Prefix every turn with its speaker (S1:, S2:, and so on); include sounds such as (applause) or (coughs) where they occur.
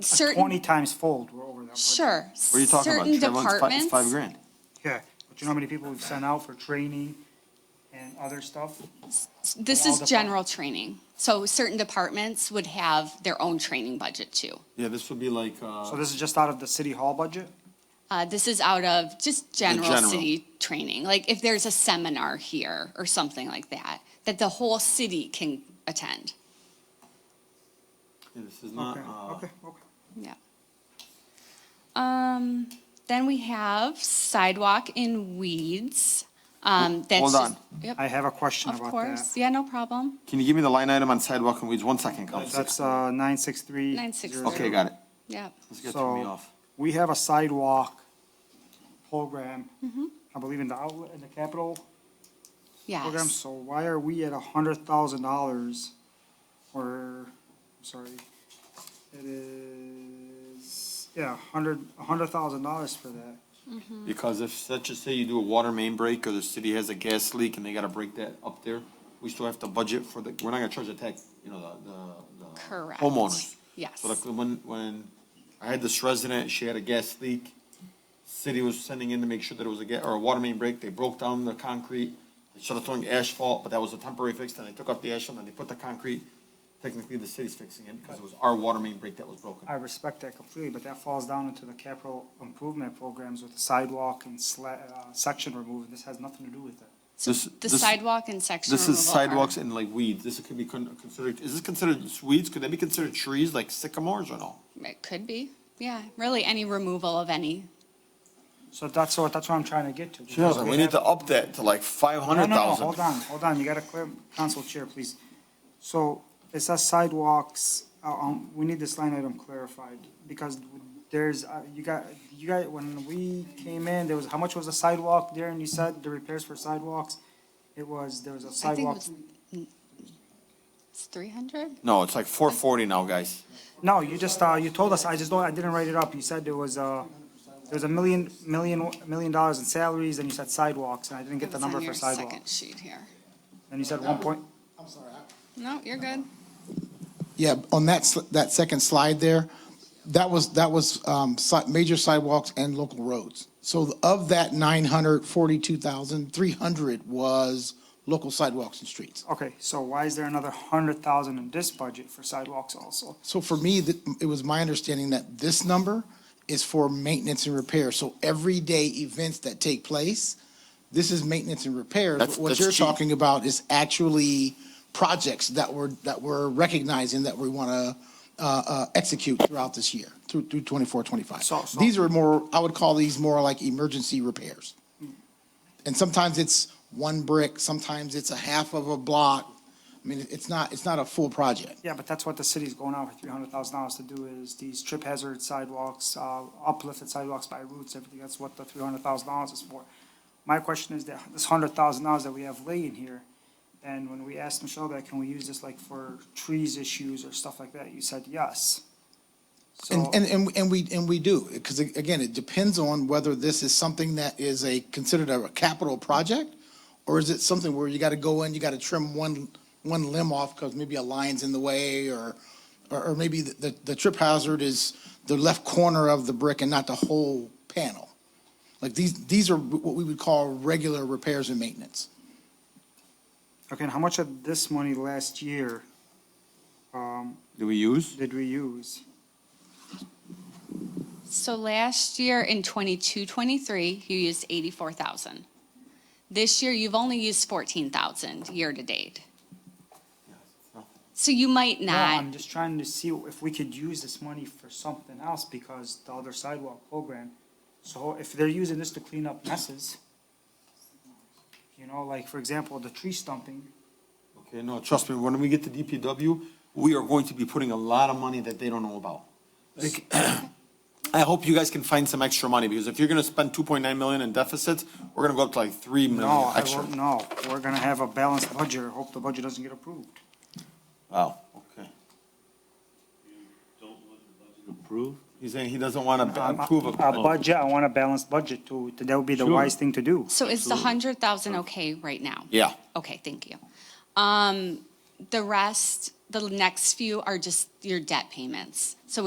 S1: certain,
S2: Twenty times fold, we're over that. budget.
S1: sure.
S3: What are you talking
S1: Certain
S3: about? Trevor, it's fi- it's
S1: departments.
S3: Five grand.
S2: Yeah, but you know how many people we've sent out for training and other stuff?
S1: This
S2: All
S1: is
S2: depart-
S1: general training. So certain departments would have their own training budget too.
S3: Yeah, this would be like,
S2: So
S3: uh,
S2: this is just out of the city hall budget?
S1: Uh, this is out of just general
S3: general.
S1: city training. Like if there's a seminar here or something like that, that the whole city can attend.
S3: this is not,
S2: Okay,
S3: uh,
S2: okay, okay.
S1: Yeah. Um, then we have sidewalk in weeds. Um, that's
S3: hold
S1: just-
S3: on.
S1: Yep,
S2: I have a question
S1: of
S2: about
S1: course.
S2: that.
S1: Yeah, no problem.
S3: can you give me the line item on sidewalk and weeds? One second, guys.
S2: That's, uh, nine six three.
S1: 963.
S3: Okay, got it.
S1: Yep.
S3: This guy threw me
S2: So,
S3: off.
S2: we have a sidewalk program,
S1: Mm-hmm.
S2: I believe in the outlet, in the capital program,
S1: Yes.
S2: so why are we at a hundred thousand dollars? Or, I'm sorry, it is, yeah, hundred, a hundred thousand dollars for that.
S3: Because if, let's just say you do a water main break or the city has a gas leak and they gotta break that up there, we still have to budget for the, we're not gonna charge the tax, you know, the, the, the
S1: Correct.
S3: homeowners.
S1: Yes.
S3: So like when, when I had this resident, she had a gas leak, city was sending in to make sure that it was a ga, or a water main break, they broke down the concrete, they started throwing asphalt, but that was a temporary fix, then they took off the asphalt and they put the concrete. Technically, the city's fixing it because it was our water main break that was broken.
S2: I respect that completely, but that falls down into the capital improvement programs with the sidewalk and sla, uh, section removal, this has nothing to do with that.
S1: So
S3: This-
S1: the
S3: this-
S1: sidewalk and section
S3: This is
S1: removal are-
S3: sidewalks and like weeds. This could be con- considered, is this considered weeds? Could that be considered trees like sycamores or no?
S1: It could be, yeah, really any removal of any.
S2: So that's what, that's what I'm trying to get to. because
S3: We need
S2: have-
S3: to up that to like five
S2: No,
S3: hundred
S2: no, no,
S3: thousand.
S2: hold on, hold on, you gotta clear, council chair, please. So it says sidewalks, uh, um, we need this line item clarified, because there's, uh, you got, you got, when we came in, there was, how much was the sidewalk there, and you said the repairs for sidewalks? It was, there was a
S1: I think it
S2: sidewalk,
S1: was- It's three hundred?
S3: No, it's like four forty now, guys.
S2: no, you just, uh, you told us, I just don't, I didn't write it up, you said there was, uh, there was a million, million, million dollars in salaries, and you said sidewalks, and I didn't get the number for
S1: Second
S2: sidewalks.
S1: sheet here.
S2: And you said one point,
S4: I'm sorry. I-
S1: No, you're good.
S4: Yeah, on that, sl- that second slide there, that was, that was um, si- major sidewalks and local roads. So of that 942,000, 300 was local sidewalks and streets.
S2: Okay, so why is there another hundred thousand in this budget for sidewalks also?
S4: So for me, th- it was my understanding that this number is for maintenance and repair. So everyday events that take place, this is maintenance and repairs.
S3: That's-
S4: But What
S3: that's
S4: you're
S3: cheap.
S4: talking about is actually projects that we're, that we're recognizing that we want to uh, uh, execute throughout this year, through, through 24, 25.
S2: So- so-
S4: These are more, I would call these more like emergency repairs. And sometimes it's one brick, sometimes it's a half of a block. I mean, it's not, it's not a full project.
S2: Yeah, but that's what the city's going out for three hundred thousand dollars to do is these trip hazard sidewalks, uh, uplifted sidewalks by roots, everything, that's what the three hundred thousand dollars is for. My question is that this hundred thousand dollars that we have laying here, and when we asked Michelle that, can we use this like for trees issues or stuff like that, you said yes. So,
S4: And, and, and- and we, and we do, because again, it depends on whether this is something that is a, considered a capital project, or is it something where you gotta go in, you gotta trim one, one limb off because maybe a line's in the way, or, or, or maybe the, the- the trip hazard is the left corner of the brick and not the whole panel. Like these, these are what we would call regular repairs and maintenance.
S2: okay, and how much of this money last year, um,
S3: Do we use?
S2: did we use?
S1: So last year in 22-23, you used eighty-four thousand. This year, you've only used fourteen thousand year-to-date. So you might
S2: No,
S1: not,
S2: I'm just trying to see if we could use this money for something else because the other sidewalk program. So if they're using this to clean up messes, you know, like for example, the tree stumping,
S3: Okay, no, trust me, when we get to DPW, we are going to be putting a lot of money that they don't know about. Like, (coughs) I hope you guys can find some extra money, because if you're gonna spend two point nine million in deficits, we're gonna go up to like three
S2: no,
S3: million
S2: I
S3: extra.
S2: won't, no, we're gonna have a balanced budget, hope the budget doesn't get approved.
S3: Wow, okay.
S5: Approve?
S3: He's saying he doesn't wanna
S2: Um,
S3: approve of.
S2: A budget, I want a balanced budget to, that would be the
S5: Sure.
S2: wise thing to do.
S1: so is the hundred thousand okay right now?
S3: Yeah.
S1: Okay, thank you. Um, the rest, the next few are just your debt payments. So we